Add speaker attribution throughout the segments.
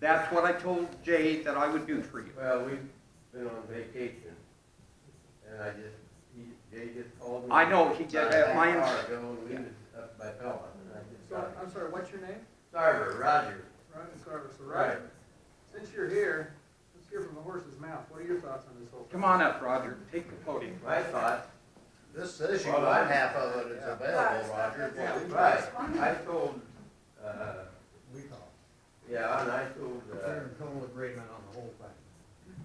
Speaker 1: That's what I told Jay that I would do for you.
Speaker 2: Well, we've been on vacation, and I just, he, Jay just called me.
Speaker 1: I know, he
Speaker 2: about
Speaker 1: did have
Speaker 2: half
Speaker 1: my
Speaker 2: hour
Speaker 1: ins-
Speaker 2: ago, and we
Speaker 1: Yeah.
Speaker 2: was up by Pelican, and I just
Speaker 3: So,
Speaker 2: got,
Speaker 3: I'm sorry, what's your name?
Speaker 2: Sarver, Roger,
Speaker 3: Ryan Sarver. So
Speaker 2: Right.
Speaker 3: Ryan, since you're here, let's hear from the horse's mouth. What are your thoughts on this whole? thing?
Speaker 1: Come on up, Roger, take the podium.
Speaker 2: my thoughts,
Speaker 4: This says you
Speaker 2: Well,
Speaker 4: want
Speaker 2: I-
Speaker 4: half of it is
Speaker 2: yeah.
Speaker 4: available, Roger.
Speaker 2: yeah, right, I told, uh,
Speaker 5: We thought,
Speaker 2: yeah, and I told, uh,
Speaker 5: we're in total agreement on the whole thing.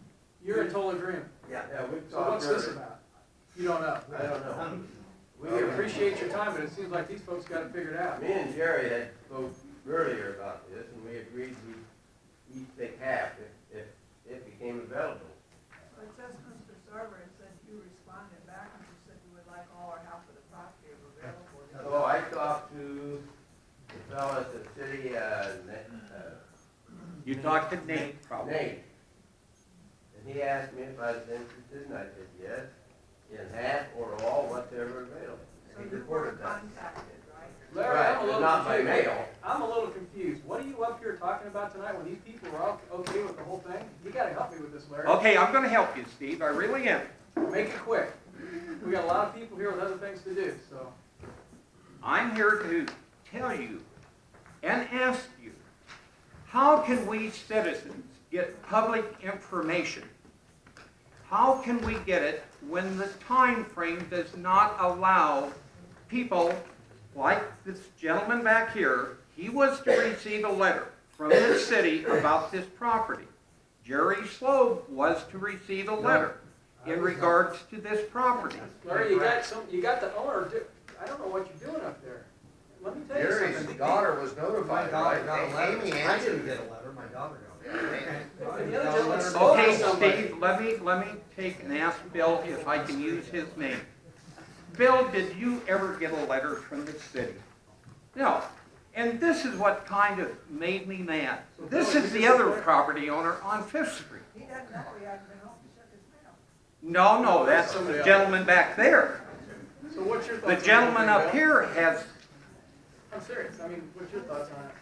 Speaker 3: You're in total agreement.
Speaker 2: yeah, we
Speaker 3: So
Speaker 2: talked
Speaker 3: what's this Um,
Speaker 2: earlier.
Speaker 3: about? You don't know.
Speaker 2: I don't know.
Speaker 3: We appreciate your time, but it seems like these folks got it figured out.
Speaker 2: Me and Jerry had spoke earlier about this, and we agreed we'd each take half if, if it became available.
Speaker 6: But just Mr. Server, it says you responded back and you said you would like all or half of the property if available.
Speaker 2: So I talked to the fellow at the city, uh, Na- uh,
Speaker 1: You talked to Nate, probably.
Speaker 2: Nate. And he asked me if I was interested, and I said yes, in half or all, whatever available.
Speaker 6: So
Speaker 2: And he
Speaker 6: you were
Speaker 2: reported that.
Speaker 6: contacted, right?
Speaker 3: Larry, I'm a
Speaker 2: Right, but
Speaker 3: little
Speaker 2: not by
Speaker 3: confused.
Speaker 2: mail.
Speaker 3: I'm a little confused. What are you up here talking about tonight when these people are all okay with the whole thing? You gotta help me with this, Larry.
Speaker 1: Okay, I'm gonna help you, Steve, I really am.
Speaker 3: Make it quick. We got a lot of people here with other things to do, so.
Speaker 1: I'm here to tell you and ask you, how can we citizens get public information? How can we get it when the time frame does not allow people like this gentleman back here? He was to receive a letter from the city about this property. Jerry Slobe was to receive a letter in regards to this property.
Speaker 3: Larry, you got some, you got the owner, do- I don't know what you're doing up there. Let me tell you something.
Speaker 4: Jerry's daughter was
Speaker 5: My
Speaker 4: notified,
Speaker 5: daughter
Speaker 4: right?
Speaker 5: got a letter,
Speaker 4: Amy
Speaker 5: I didn't
Speaker 4: answered
Speaker 5: get
Speaker 4: it.
Speaker 5: a letter, my daughter got
Speaker 4: Yeah, Amy.
Speaker 3: The other
Speaker 5: it.
Speaker 3: gentleman
Speaker 4: Oh,
Speaker 3: stole from
Speaker 1: Okay,
Speaker 3: somebody.
Speaker 1: Steve, let me, let me take and ask Bill if I can use his name. Bill, did you ever get a letter from the city? No. And this is what kind of made me mad. This is the other property owner on Fifth Street.
Speaker 6: He doesn't know he hasn't been home, he shook his mail.
Speaker 1: No, no, that's the gentleman back there.
Speaker 3: So what's your thoughts?
Speaker 1: The
Speaker 3: on
Speaker 1: gentleman
Speaker 3: that,
Speaker 1: up
Speaker 3: Bill?
Speaker 1: here has,
Speaker 3: I'm serious, I mean, what's your thoughts on it?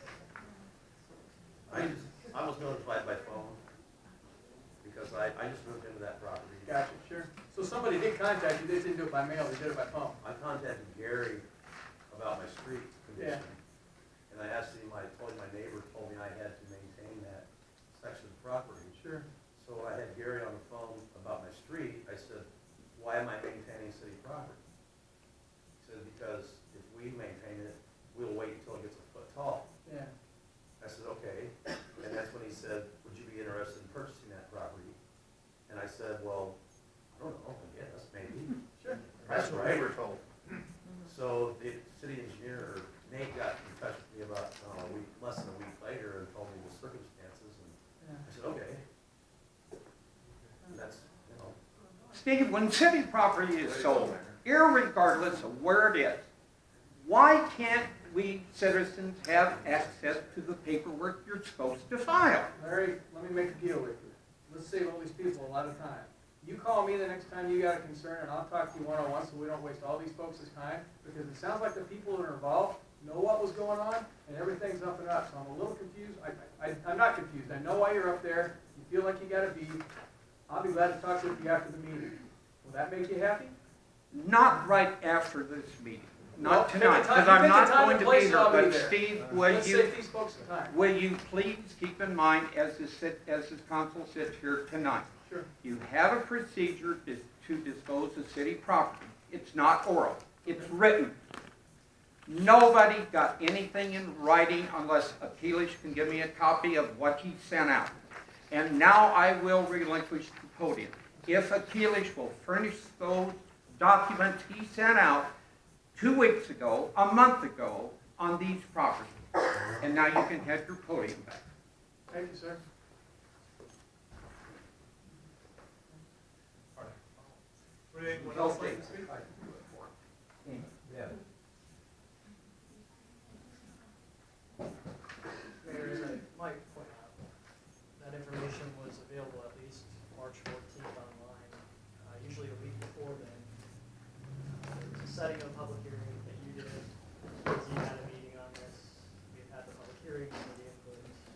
Speaker 7: I just, I was notified by phone because I, I just moved into that property.
Speaker 3: Gotcha, sure. So somebody did contact you, they didn't do it by mail, they did it by phone.
Speaker 7: I contacted Gary about my street condition. And I asked him, I told him my neighbor told me I had to maintain that section of property.
Speaker 3: Sure.
Speaker 7: So I had Gary on the phone about my street. I said, why am I maintaining city property? He said, because if we maintain it, we'll wait until it gets a foot tall.
Speaker 3: Yeah.
Speaker 7: I said, okay, and that's when he said, would you be interested in purchasing that property? And I said, well, I don't know, I guess, maybe.
Speaker 3: Sure.
Speaker 4: That's what we were told.
Speaker 7: So the city engineer, Nate, got in touch with me about, uh, a week, less than a week later, and told me the circumstances, and I said, okay. And that's, you know,
Speaker 1: Steve, when city property is sold, irregardless of where it is, why can't we citizens have access to the paperwork you're supposed to file?
Speaker 3: Larry, let me make a deal with you. Let's save all these people a lot of time. You call me the next time you got a concern, and I'll talk to you one-on-one, so we don't waste all these folks' time, because it sounds like the people that are involved know what was going on, and everything's up and up, so I'm a little confused. I, I, I'm not confused, I know why you're up there, you feel like you gotta be. I'll be glad to talk to you after the meeting. Will that make you happy?
Speaker 1: Not right after this meeting,
Speaker 3: Well,
Speaker 1: not
Speaker 3: pick a
Speaker 1: tonight,
Speaker 3: time-
Speaker 1: because
Speaker 3: pick a
Speaker 1: I'm not
Speaker 3: time
Speaker 1: going
Speaker 3: and
Speaker 1: to
Speaker 3: place
Speaker 1: be
Speaker 3: and
Speaker 1: here,
Speaker 3: I'll be
Speaker 1: but
Speaker 3: there. Uh,
Speaker 1: Steve, will
Speaker 3: Let's
Speaker 1: you,
Speaker 3: save these folks some time.
Speaker 1: will you please keep in mind as the sit, as the council sits here tonight?
Speaker 3: Sure.
Speaker 1: You have a procedure dis- to dispose of city property. It's not oral, it's written. Nobody got anything in writing unless Apelish can give me a copy of what he sent out. And now I will relinquish the podium. If Apelish will furnish those documents he sent out two weeks ago, a month ago, on these properties. And now you can have your podium back.
Speaker 3: Thank you, sir. Anyone else like to speak?
Speaker 2: Yeah.
Speaker 8: Mayor, as I might point out, that information was available at least March fourteenth online, uh, usually a week before then. Uh, There was a setting of